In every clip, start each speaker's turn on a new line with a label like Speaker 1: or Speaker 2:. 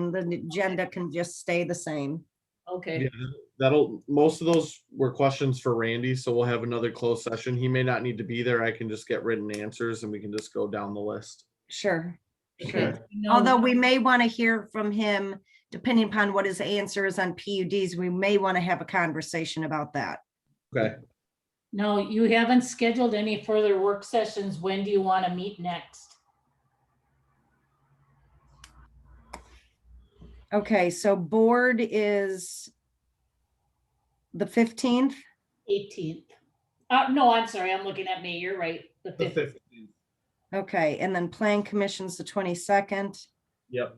Speaker 1: The agenda can just stay the same.
Speaker 2: Okay,
Speaker 3: Yeah, that'll, most of those were questions for Randy, so we'll have another closed session. He may not need to be there. I can just get written answers and we can just go down the list.
Speaker 1: Sure.
Speaker 2: because
Speaker 3: Okay.
Speaker 2: we know-
Speaker 1: Although we may want to hear from him, depending upon what his answer is on PUDs, we may want to have a conversation about that.
Speaker 3: Okay,
Speaker 2: No, you haven't scheduled any further work sessions. When do you want to meet next?
Speaker 1: Okay, so board is the fifteenth.
Speaker 2: Eighteenth. Uh, no, I'm sorry, I'm looking at me. You're right. The
Speaker 3: the
Speaker 2: fifth.
Speaker 3: 15th.
Speaker 1: Okay, and then plan commissions the twenty-second.
Speaker 3: Yep,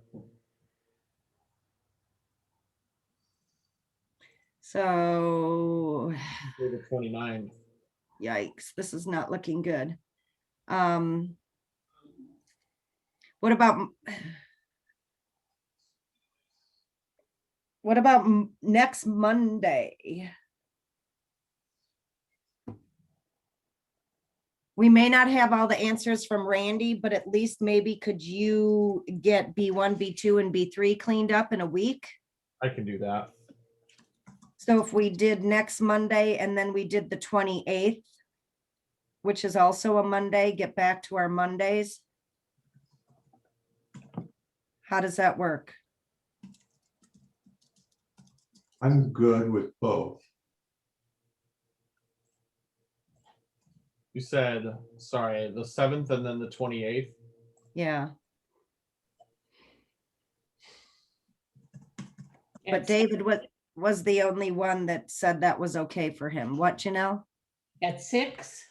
Speaker 1: So
Speaker 3: or the 29th.
Speaker 1: yikes, this is not looking good. Um, what about? m- What about m- next Monday? We may not have all the answers from Randy, but at least maybe could you get B1, B2 and B3 cleaned up in a week?
Speaker 3: I can do that.
Speaker 1: So if we did next Monday and then we did the twenty-eighth, which is also a Monday, get back to our Mondays. How does that work?
Speaker 4: I'm good with both.
Speaker 3: You said, sorry, the seventh and then the twenty-eighth.
Speaker 1: Yeah, but
Speaker 2: That's-
Speaker 1: David was, was the only one that said that was okay for him. What, Janelle?
Speaker 2: At six?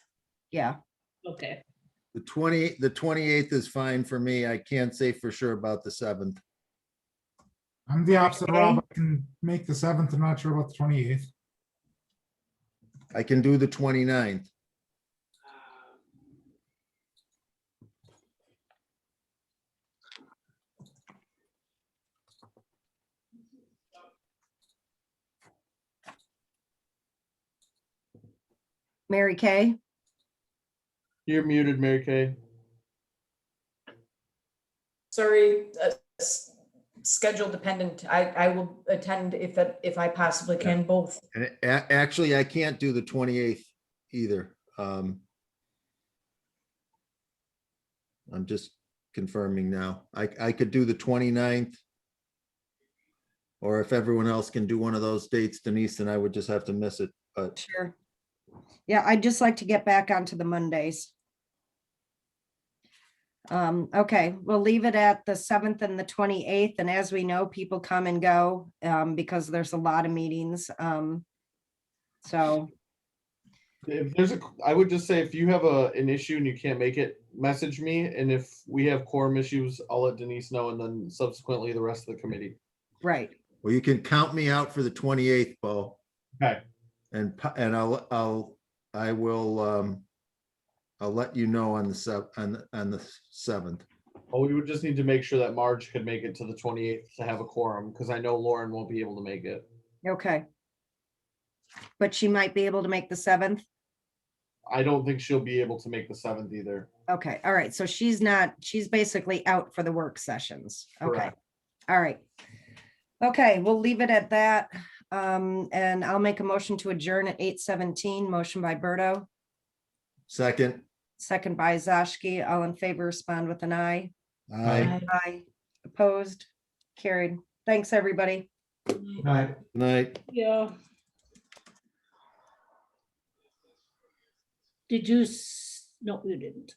Speaker 1: Yeah,
Speaker 2: Okay,
Speaker 5: The twenty, the twenty-eighth is fine for me. I can't say for sure about the seventh.
Speaker 6: I'm the opposite of Rob.
Speaker 1: Okay.
Speaker 6: I can make the seventh. I'm not sure about the twenty-eighth.
Speaker 5: I can do the 29th.
Speaker 1: Mary Kay?
Speaker 3: You're muted, Mary Kay.
Speaker 7: Sorry, uh, s- schedule dependent. I, I will attend if that, if I possibly can both.
Speaker 5: And a- actually, I can't do the twenty-eighth either. Um. I'm just confirming now. I, I could do the 29th. Or if everyone else can do one of those dates, Denise, then I would just have to miss it, but
Speaker 1: Sure. Yeah, I'd just like to get back onto the Mondays. Um, okay, we'll leave it at the seventh and the twenty-eighth, and as we know, people come and go, um, because there's a lot of meetings, um. So,
Speaker 3: If there's a, I would just say if you have a, an issue and you can't make it, message me. And if we have quorum issues, I'll let Denise know and then subsequently the rest of the committee.
Speaker 1: right,
Speaker 5: well, you can count me out for the twenty-eighth, Bo.
Speaker 3: Okay.
Speaker 5: And, pa- and I'll, I'll, I will, um, I'll let you know on the sev, on, the- on the seventh.
Speaker 3: Well, we would just need to make sure that Marge could make it to the twenty-eighth to have a quorum, because I know Lauren won't be able to make it.
Speaker 1: okay. But she might be able to make the seventh,
Speaker 3: I don't think she'll be able to make the seventh either.
Speaker 1: okay, all right, so she's not, she's basically out for the work sessions, okay,
Speaker 3: Correct.
Speaker 1: all right. Okay, we'll leave it at that, um, and I'll make a motion to adjourn at eight seventeen, motion by Berto,
Speaker 5: Second,
Speaker 1: second by Zashki, all in favor, respond with an eye.
Speaker 5: I,
Speaker 7: Aye.
Speaker 1: Aye. Opposed, carried, thanks, everybody.
Speaker 4: Right.
Speaker 5: night,
Speaker 2: yeah. Did you, s- no, you didn't.